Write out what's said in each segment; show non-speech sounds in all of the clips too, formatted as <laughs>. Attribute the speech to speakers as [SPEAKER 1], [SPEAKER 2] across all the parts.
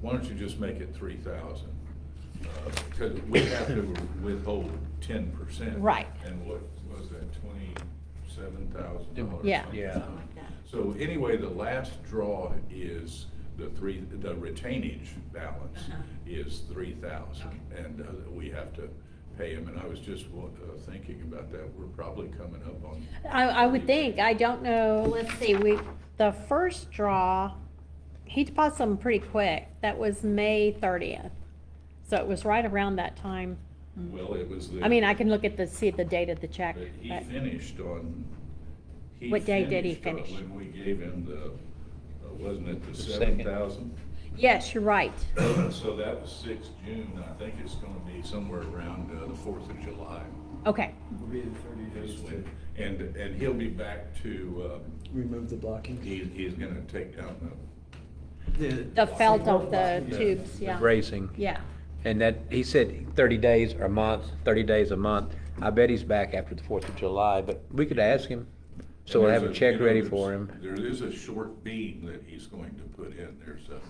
[SPEAKER 1] why don't you just make it three thousand? Uh, Because we have to withhold ten percent.
[SPEAKER 2] Right.
[SPEAKER 1] And what was that, twenty-seven thousand dollars?
[SPEAKER 2] Yeah.
[SPEAKER 3] Yeah.
[SPEAKER 1] So anyway, the last draw is the three, the retainage balance is three thousand. And uh, we have to pay him, and I was just wa- uh, thinking about that, we're probably coming up on.
[SPEAKER 2] I, I would think, I don't know, let's see, we, the first draw, he deposited them pretty quick, that was May thirtieth. So it was right around that time,
[SPEAKER 1] Well, it was the.
[SPEAKER 2] I mean, I can look at the, see the date of the check,
[SPEAKER 1] But he
[SPEAKER 2] but,
[SPEAKER 1] finished on. he
[SPEAKER 2] What day did he
[SPEAKER 1] finished, uh,
[SPEAKER 2] finish?
[SPEAKER 1] When we gave him the, uh, wasn't it the
[SPEAKER 3] The second.
[SPEAKER 1] seven thousand?
[SPEAKER 2] yes, you're right,
[SPEAKER 1] So that was sixth June, I think it's gonna be somewhere around uh, the fourth of July.
[SPEAKER 2] okay,
[SPEAKER 4] Will be the thirty days
[SPEAKER 1] is
[SPEAKER 4] to
[SPEAKER 1] when- And, and he'll be back to, um,
[SPEAKER 4] remove the blocking.
[SPEAKER 1] he, he's gonna take down the,
[SPEAKER 2] the felt of the
[SPEAKER 1] Yeah.
[SPEAKER 2] tubes, yeah.
[SPEAKER 3] Racing.
[SPEAKER 2] Yeah,
[SPEAKER 3] And that, he said thirty days or a month, thirty days a month. I bet he's back after the Fourth of July, but we could ask him. So we'll have a
[SPEAKER 1] There's you
[SPEAKER 3] check
[SPEAKER 1] know,
[SPEAKER 3] ready
[SPEAKER 1] there's-
[SPEAKER 3] for him.
[SPEAKER 1] There is a short beam that he's going to put in, there's a,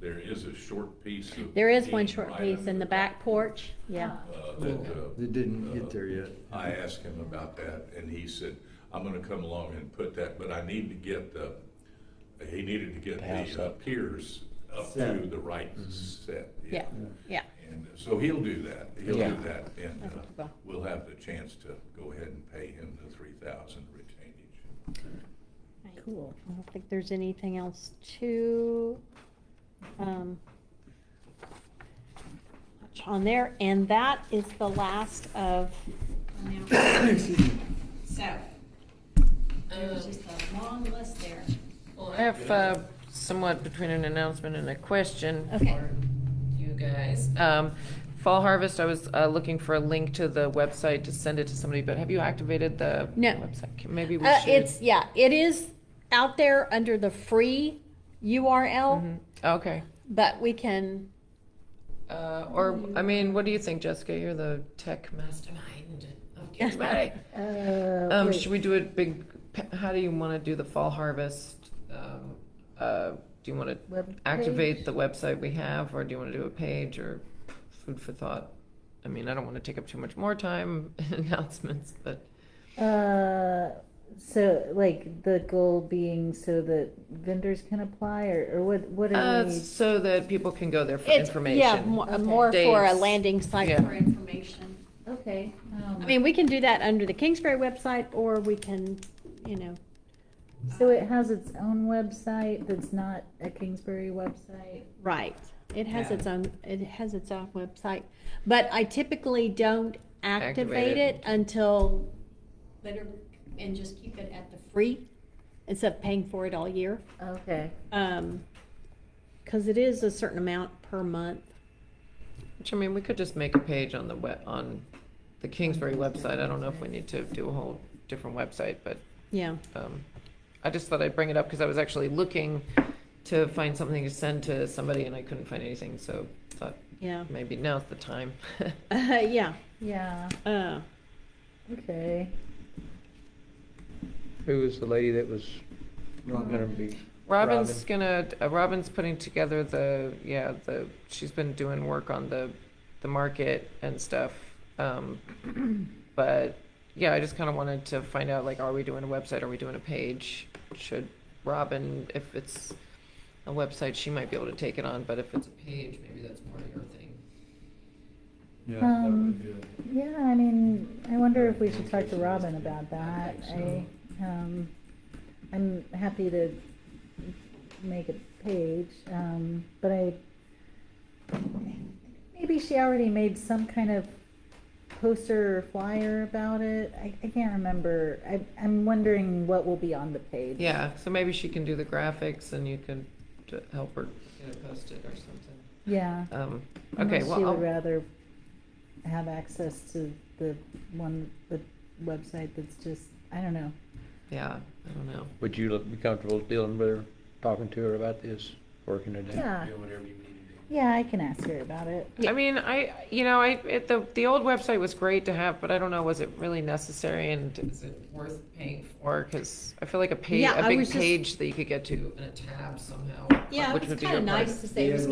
[SPEAKER 1] there is a short piece of.
[SPEAKER 2] there is one
[SPEAKER 1] beam
[SPEAKER 2] short
[SPEAKER 1] right
[SPEAKER 2] piece
[SPEAKER 1] under
[SPEAKER 2] in the back porch, yeah,
[SPEAKER 1] uh, that, uh,
[SPEAKER 4] They didn't get there yet.
[SPEAKER 1] I asked him about that, and he said, I'm gonna come along and put that, but I need to get the, he needed to get
[SPEAKER 3] house
[SPEAKER 1] the uh, piers up to
[SPEAKER 4] Set.
[SPEAKER 1] the right set.
[SPEAKER 2] yeah, yeah.
[SPEAKER 1] And uh, so he'll do that, he'll
[SPEAKER 3] Yeah.
[SPEAKER 1] do that, and
[SPEAKER 2] I think he
[SPEAKER 1] uh,
[SPEAKER 2] will.
[SPEAKER 1] we'll have the chance to go ahead and pay him the three thousand retainage.
[SPEAKER 2] Cool. I don't think there's anything else to, um, much on there, and that is the last of,
[SPEAKER 4] <coughs> Excuse
[SPEAKER 2] Um,
[SPEAKER 4] me.
[SPEAKER 5] So, there's just a long list there.
[SPEAKER 6] Well, I have uh, somewhat between an announcement and a question
[SPEAKER 2] Okay.
[SPEAKER 6] for you guys. Um, Fall Harvest, I was uh, looking for a link to the website to send it to somebody, but have you activated the
[SPEAKER 2] No.
[SPEAKER 6] website? Maybe we
[SPEAKER 2] uh,
[SPEAKER 6] should.
[SPEAKER 2] it's, yeah, it is out there under the free
[SPEAKER 6] Mm-hmm.
[SPEAKER 2] URL,
[SPEAKER 6] Okay.
[SPEAKER 2] but we can,
[SPEAKER 6] Uh, Or, I mean, what do you think, Jessica? You're the tech mastermind
[SPEAKER 2] <laughs>
[SPEAKER 6] of Kingsbury.
[SPEAKER 7] Uh,
[SPEAKER 2] Oh,
[SPEAKER 6] Um, Should we do a big, pa- how do you want to do the Fall Harvest? Um, uh, Do you want to activate the website we have, or do you want to do a page or food for thought? I mean, I don't want to take up too much more time <laughs> in announcements, but
[SPEAKER 7] Uh, so like the goal being so that vendors can apply or, or what, what
[SPEAKER 6] uh,
[SPEAKER 7] are we?
[SPEAKER 6] so that people can go there for
[SPEAKER 2] it's, yeah,
[SPEAKER 6] information.
[SPEAKER 2] mo- more for a
[SPEAKER 6] Dates.
[SPEAKER 2] landing site
[SPEAKER 6] Yeah.
[SPEAKER 2] for information.
[SPEAKER 7] Okay.
[SPEAKER 2] I
[SPEAKER 7] um,
[SPEAKER 2] mean, we can do that under the Kingsbury website, or we can, you know,
[SPEAKER 7] So it has its own website that's not a Kingsbury website?
[SPEAKER 2] Right. It has
[SPEAKER 6] Yeah.
[SPEAKER 2] its own, it has its own website, but I typically don't activate
[SPEAKER 6] Activate it.
[SPEAKER 2] it until,
[SPEAKER 5] Better, and just keep it at the
[SPEAKER 2] free, instead of paying for it all year.
[SPEAKER 7] Okay.
[SPEAKER 2] Um, cause it is a certain amount per month.
[SPEAKER 6] Which, I mean, we could just make a page on the web, on the Kingsbury website. I don't know if we need to do a whole different website, but
[SPEAKER 2] Yeah.
[SPEAKER 6] um, I just thought I'd bring it up because I was actually looking to find something to send to somebody and I couldn't find anything, so thought
[SPEAKER 2] Yeah. <laughs>
[SPEAKER 6] maybe now's the time. <laughs>
[SPEAKER 2] Uh, yeah.
[SPEAKER 7] Yeah,
[SPEAKER 2] Uh,
[SPEAKER 7] okay.
[SPEAKER 3] Who was the lady that was not gonna be?
[SPEAKER 6] Robin's gonna, uh, Robin's putting together the, yeah, the, she's been doing work on the, the market and stuff. Um, <clears throat> but yeah, I just kind of wanted to find out like, are we doing a website? Are we doing a page? Should Robin, if it's a website, she might be able to take it on, but if it's a page, maybe that's more your thing.
[SPEAKER 4] Yeah, that
[SPEAKER 7] Um,
[SPEAKER 4] would be good.
[SPEAKER 7] Yeah, I mean, I wonder if we should talk to Robin about that. I, um, I'm happy to make a page, um, but I, maybe she already made some kind of poster or flyer about it. I, I can't remember. I, I'm wondering what will be on the page.
[SPEAKER 6] Yeah, so maybe she can do the graphics and you can t- help her get it posted or something.
[SPEAKER 7] Yeah.
[SPEAKER 6] Um, okay,
[SPEAKER 7] Unless she
[SPEAKER 6] well,
[SPEAKER 7] would
[SPEAKER 6] I'll-
[SPEAKER 7] rather have access to the one, the website that's just, I don't know.
[SPEAKER 6] yeah, I don't know.
[SPEAKER 3] Would you look- be comfortable dealing with her, talking to her about this, working it out?
[SPEAKER 2] uh,
[SPEAKER 7] Yeah,
[SPEAKER 4] Yeah, whatever you need to do.
[SPEAKER 7] yeah, I can ask her about it.
[SPEAKER 6] I mean, I, you know, I, it, the, the old website was great to have, but I don't know, was it really necessary and is it worth paying for? Cause I feel like a page,
[SPEAKER 2] Yeah,
[SPEAKER 6] a
[SPEAKER 2] I
[SPEAKER 6] big
[SPEAKER 2] was just-
[SPEAKER 6] page that you could get to in a tab somehow.
[SPEAKER 2] yeah,
[SPEAKER 6] which
[SPEAKER 2] it's
[SPEAKER 6] would be
[SPEAKER 2] kinda
[SPEAKER 6] your part-
[SPEAKER 2] nice to say it was